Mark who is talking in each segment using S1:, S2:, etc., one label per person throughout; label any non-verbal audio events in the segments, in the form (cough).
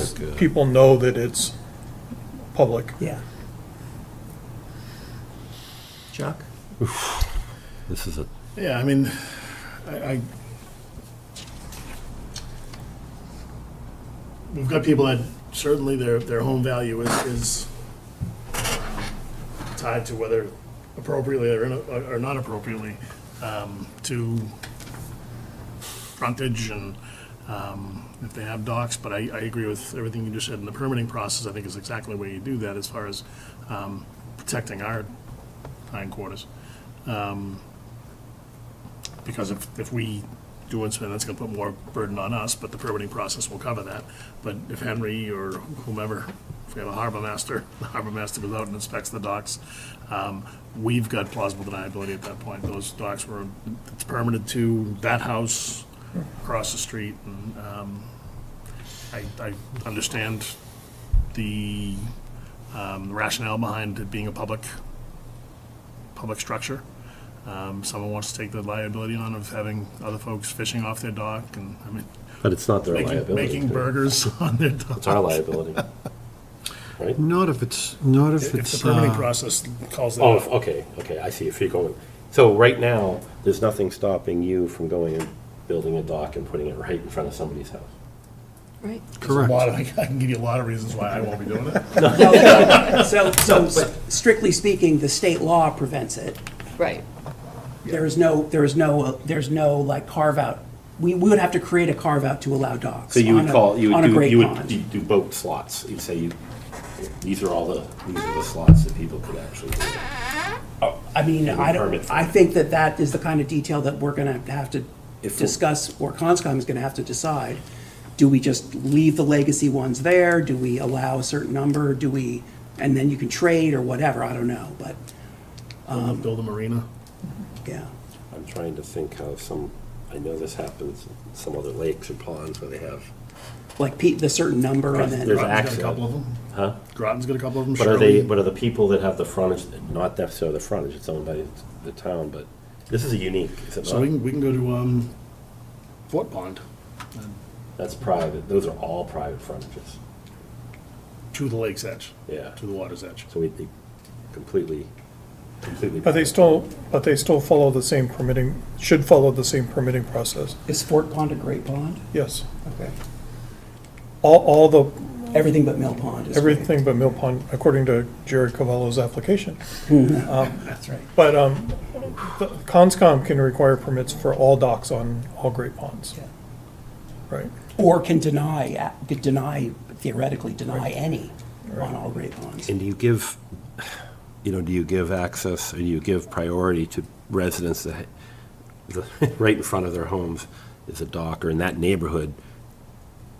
S1: that people know that it's public.
S2: Yeah. Chuck?
S3: This is a,
S4: Yeah, I mean, I, I, we've got people that certainly their, their home value is, is tied to whether appropriately or, in- or not appropriately, um, to frontage and, um, if they have docks, but I, I agree with everything you just said in the permitting process, I think is exactly the way you do that as far as, um, protecting our hindquarters because if, if we do inspect, that's gonna put more burden on us, but the permitting process will cover that. But if Henry or whomever, if we have a harbor master, (laughs) the harbor master goes out and inspects the docks, um, we've got plausible deniability at that point. Those docks were, it's permitted to that house across the street, and, um, I, I understand the um, rationale behind it being a public, public structure. Um, Someone wants to take the liability on of having other folks fishing off their dock and, I mean,
S3: but it's not their
S4: making-
S3: liability.
S4: making burgers (laughs) on their dock.
S3: It's our liability. Right?
S5: Not if it's, not if
S4: If the
S5: it's,
S4: permitting
S5: uh,
S4: process calls that
S3: Oh,
S4: off.
S3: if- okay, okay, I see, if you're going, so right now, there's nothing stopping you from going and building a dock and putting it right in front of somebody's house.
S6: Right.
S4: There's a lot
S5: correct.
S4: of- (laughs) I can give you a lot of reasons why I won't be doing (laughs) it.
S3: (laughs)
S2: So, so strictly speaking, the state law prevents it.
S6: Right.
S2: There is no, there is no, uh, there's no like carve out. We we would have to create a carve out to allow dogs.
S3: So you
S2: on
S3: would
S2: a-
S3: call, you
S2: On
S3: would
S2: a
S3: do,
S2: great
S3: you would
S2: pond.
S3: d- do boat slots, you'd say, you- these are all the, these are the slots that people could actually do.
S2: I mean,
S3: would
S2: I
S3: Oh. permit
S2: don't,
S3: for
S2: I
S3: it.
S2: think that that is the kind of detail that we're gonna have to
S3: If we-
S2: discuss, or Conscom is gonna have to decide. Do we just leave the legacy ones there? Do we allow a certain number? Do we, and then you can trade or whatever, I don't know, but,
S4: Uh, Build a marina.
S2: yeah.
S3: I'm trying to think how some, I know this happens in some other lakes or ponds where they have,
S2: Like Pete, the certain number and then.
S3: There's
S4: Groton's got a
S3: access.
S4: couple of them.
S3: huh?
S4: Groton's got a couple of them.
S3: But are they,
S4: Shirley-
S3: but are the people that have the frontage, not necessarily the frontage, it's owned by the town, but this is a unique, is it
S4: So we
S3: not?
S4: can, we can go to, um, Fort Pond,
S3: That's private, those are all private frontages.
S4: to the lake's edge.
S3: Yeah.
S4: To the water's edge.
S3: So we'd be completely, completely.
S1: But they still, but they still follow the same permitting, should follow the same permitting process,
S2: Is Fort Pond a great pond?
S1: yes.
S2: Okay.
S1: All, all the,
S2: Everything but Mill Pond is. great.
S1: everything but Mill Pond, according to Jared Cavallo's application.
S2: That's right.
S1: But um, the- Conscom can require permits for all docks on all great ponds.
S2: Yeah.
S1: Right,
S2: Or can deny, could deny, theoretically deny any on all great ponds.
S3: And do you give, you know, do you give access, or do you give priority to residents that, the- right in front of their homes is a dock, or in that neighborhood,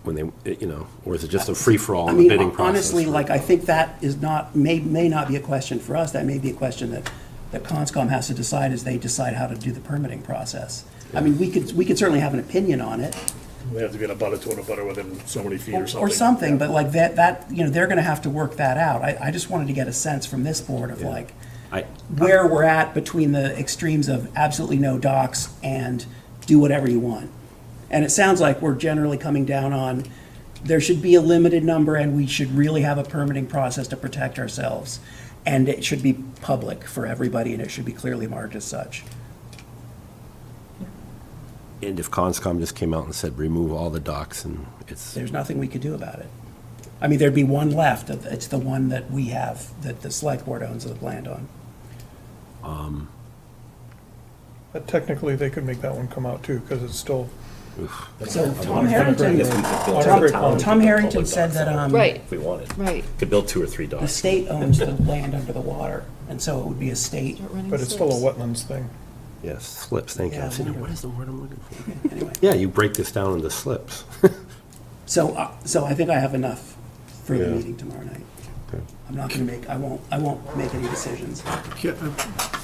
S3: when they, you know, or is it just a free-for-all
S2: I
S3: in the
S2: mean,
S3: bidding process?
S2: honestly, like, I think that is not, may, may not be a question for us, that may be a question that, that Conscom has to decide as they decide how to do the permitting process. I mean, we could, we could certainly have an opinion on it,
S4: They have to get a butter to a butter within so many feet or something.
S2: or something, but like that, that, you know, they're gonna have to work that out. I, I just wanted to get a sense from this board of like,
S3: I,
S2: where we're at between the extremes of absolutely no docs and do whatever you want. And it sounds like we're generally coming down on, there should be a limited number and we should really have a permitting process to protect ourselves. And it should be public for everybody and it should be clearly marked as such.
S3: and if Conscom just came out and said, remove all the docks, and it's,
S2: There's nothing we could do about it. I mean, there'd be one left, it's the one that we have, that the select board owns the land on.
S1: but technically, they could make that one come out too, because it's still
S2: So Tom Harrington, Tom Tom Harrington said that, um.
S6: Right.
S3: if we wanted.
S6: Right.
S3: Could build two or three
S2: The
S3: docks.
S2: state owns the land under the water, and so it would be a state,
S1: But it's still a wetlands thing.
S3: Yes, slips, thank you.
S2: Yeah,
S3: I said,
S2: wonderful.
S3: what is the word I'm looking for?
S2: anyway.
S3: Yeah, you break this down into slips.
S2: So, uh, so I think I have enough for the
S3: Yeah.
S2: meeting tomorrow night. I'm not gonna make, I won't, I won't make any decisions.
S5: Ca- uh,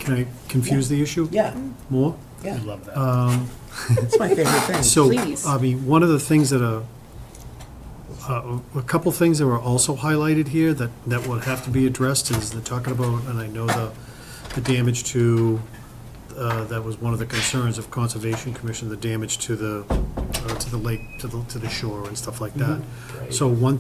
S5: Can I confuse the issue?
S2: Yeah,
S5: More?
S2: yeah,
S4: I love that.
S2: it's my favorite thing.
S5: So,
S6: Please.
S5: I mean, one of the things that are, uh, a couple things that were also highlighted here that, that would have to be addressed is they're talking about, and I know the, the damage to, uh, that was one of the concerns of Conservation Commission, the damage to the, uh, to the lake, to the, to the shore and stuff like that. So one